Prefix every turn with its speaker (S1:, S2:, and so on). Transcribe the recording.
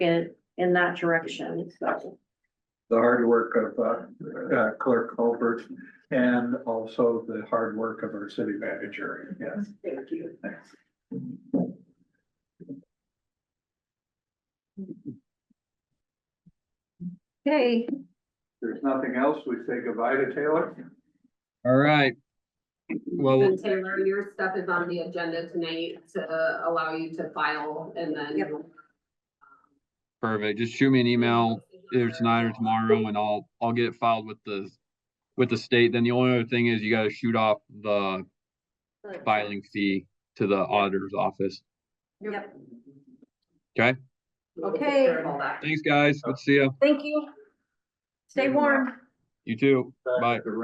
S1: in, in that direction, so.
S2: the hard work of uh, uh, Clerk Colbert and also the hard work of our city manager. Yes,
S1: Thank you.
S2: thanks.
S1: Okay,
S2: There's nothing else. We say goodbye to Taylor.
S3: All right. Well,
S4: And Taylor, your stuff is on the agenda tonight to uh, allow you to file and
S1: Yep.
S4: then. um,
S3: perfect. Just shoot me an email either tonight or tomorrow and I'll, I'll get it filed with the, with the state. Then the only other thing is you gotta shoot off the filing fee to the auditor's office.
S1: Yep.
S3: Okay.
S4: We'll take
S1: Okay.
S4: care of all that.
S3: Thanks, guys. Good to see you.
S1: thank you. Stay warm.
S3: You too. Bye.